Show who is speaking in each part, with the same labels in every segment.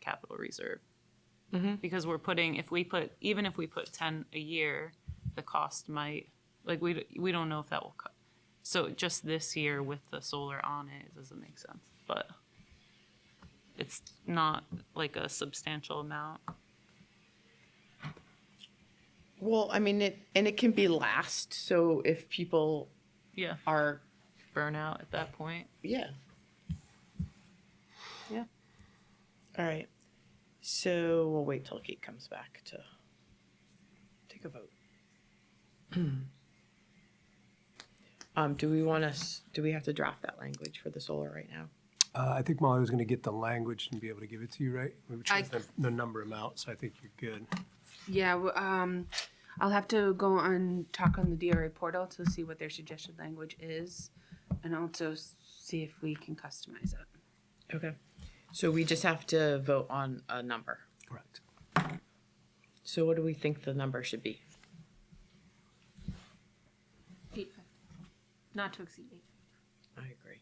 Speaker 1: capital reserve.
Speaker 2: Mm-hmm.
Speaker 1: Because we're putting, if we put, even if we put ten a year, the cost might, like, we, d- we don't know if that will cut. So just this year with the solar on it, it doesn't make sense, but it's not like a substantial amount.
Speaker 3: Well, I mean, it, and it can be last, so if people
Speaker 1: Yeah,
Speaker 3: are,
Speaker 1: burnout at that point.
Speaker 3: yeah. Yeah. All right. So we'll wait till Kate comes back to take a vote. Um, do we want us, do we have to draft that language for the solar right now?
Speaker 2: Uh, I think Molly was going to get the language and be able to give it to you, right? Which
Speaker 4: I-
Speaker 2: is the, the number amount, so I think you're good.
Speaker 4: Yeah, w- um, I'll have to go and talk on the DRA portal to see what their suggested language is, and also s- see if we can customize it.
Speaker 3: Okay. So we just have to vote on a number.
Speaker 2: Correct.
Speaker 3: So what do we think the number should be?
Speaker 5: Eight fifty. Not to exceed eight.
Speaker 3: I agree.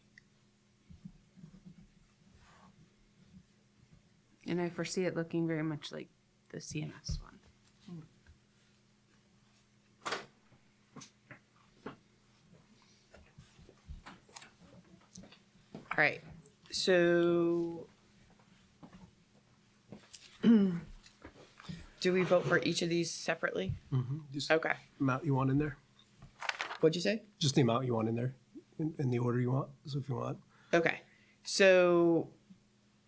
Speaker 4: And I foresee it looking very much like the CMS one.
Speaker 3: All right. So do we vote for each of these separately?
Speaker 2: Just
Speaker 3: Okay.
Speaker 2: amount you want in there,
Speaker 3: What'd you say?
Speaker 2: just the amount you want in there, in, in the order you want. So if you want,
Speaker 3: Okay. So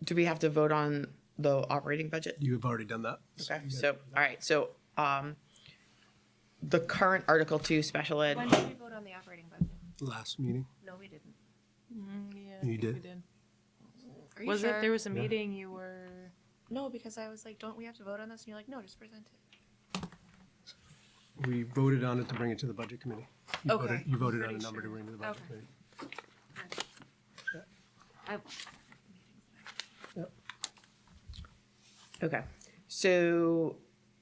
Speaker 3: do we have to vote on the operating budget?
Speaker 2: you have already done that.
Speaker 3: Okay. So, all right. So, um, the current Article Two special ed.
Speaker 5: When did we vote on the operating budget?
Speaker 2: Last meeting,
Speaker 5: No, we didn't.
Speaker 1: Yeah,
Speaker 2: I You think we did?
Speaker 5: Are you
Speaker 1: Was
Speaker 5: sure?
Speaker 1: it, there was a meeting you were,
Speaker 5: No, because I was like, don't we have to vote on this? And you're like, no, just present it.
Speaker 2: we voted on it to bring it to the budget committee. You
Speaker 5: Okay.
Speaker 2: voted- You voted on a
Speaker 5: Pretty
Speaker 2: number to
Speaker 5: sure.
Speaker 2: bring to the budget
Speaker 5: Okay.
Speaker 2: committee.
Speaker 5: I,
Speaker 3: Okay. So,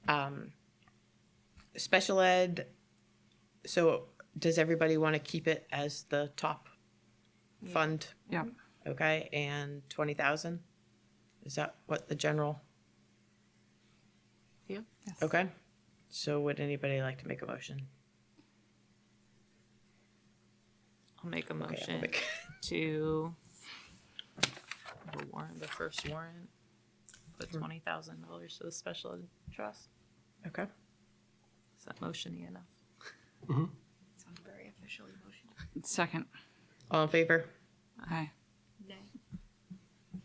Speaker 3: um, special ed. So does everybody want to keep it as the top fund?
Speaker 4: Yeah.
Speaker 3: Okay, and twenty thousand? Is that what the general?
Speaker 4: Yeah.
Speaker 3: Okay, so would anybody like to make a motion?
Speaker 1: I'll make a
Speaker 3: Okay, I'll
Speaker 1: motion
Speaker 3: make-
Speaker 1: to the warrant, the first warrant, put
Speaker 6: Hmm.
Speaker 1: twenty thousand dollars to the special ed trust.
Speaker 3: Okay,
Speaker 1: Is that motiony enough?
Speaker 5: sounded very officially motioned.
Speaker 6: Second.
Speaker 3: all in favor?
Speaker 6: Aye.
Speaker 5: Nay.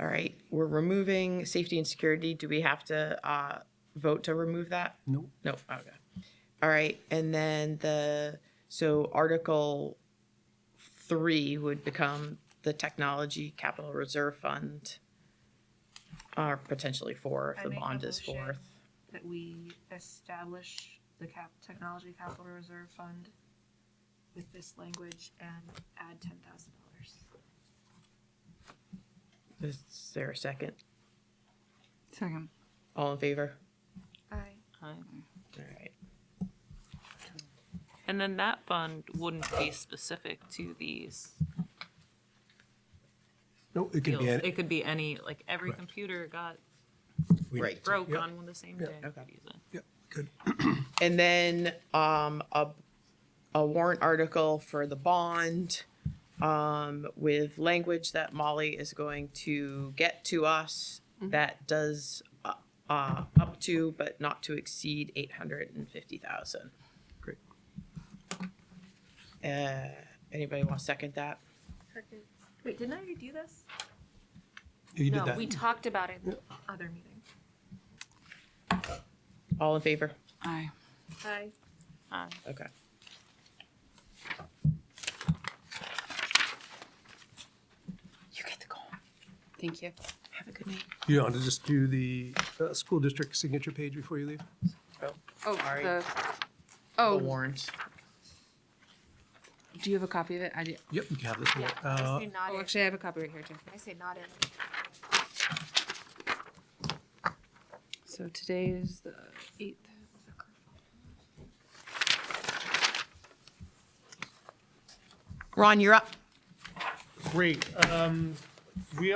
Speaker 3: All right, we're removing safety and security. Do we have to, uh, vote to remove that?
Speaker 2: Nope.
Speaker 3: No, okay. All right, and then the, so Article three would become the Technology Capital Reserve Fund. Or potentially four if
Speaker 5: I
Speaker 3: the
Speaker 5: make a
Speaker 3: bond is
Speaker 5: motion
Speaker 3: fourth.
Speaker 5: That we establish the cap, technology capital reserve fund with this language and add ten thousand dollars.
Speaker 3: Is there a second?
Speaker 6: Second.
Speaker 3: All in favor?
Speaker 5: I
Speaker 1: Aye.
Speaker 3: All right.
Speaker 1: And then that fund wouldn't be specific to these
Speaker 2: No, it could
Speaker 1: deals.
Speaker 2: be,
Speaker 1: It
Speaker 2: any-
Speaker 1: could be any, like, every computer got
Speaker 2: we-
Speaker 3: Right.
Speaker 1: broke
Speaker 2: Yep.
Speaker 1: on the same day. we
Speaker 3: Okay.
Speaker 1: could use it.
Speaker 2: yeah, good.
Speaker 3: And then, um, a, a warrant article for the bond, um, with language that Molly is going to get to us that does, uh, uh, up to, but not to exceed eight hundred and fifty thousand.
Speaker 2: Great.
Speaker 3: Uh, anybody want to second that?
Speaker 5: Wait, didn't I already do this?
Speaker 2: You did
Speaker 5: No, we
Speaker 2: that.
Speaker 5: talked about it in the other meeting.
Speaker 3: All in favor?
Speaker 6: Aye.
Speaker 5: Aye.
Speaker 1: Aye.
Speaker 3: Okay. You get to go.
Speaker 4: Thank you.
Speaker 3: Have a good night.
Speaker 2: You want to just do the, uh, school district signature page before you leave?
Speaker 4: Oh,
Speaker 3: Sorry. The
Speaker 4: the, oh,
Speaker 3: warrants.
Speaker 4: do you have a copy of it? I did.
Speaker 2: Yep, you can have this one.
Speaker 5: Yeah,
Speaker 2: Uh,
Speaker 5: I say not
Speaker 4: Oh,
Speaker 5: in.
Speaker 4: actually, I have a copy right here too.
Speaker 5: I say not in.
Speaker 4: So today is the eighth.
Speaker 3: Ron, you're up.
Speaker 7: Great. Um, we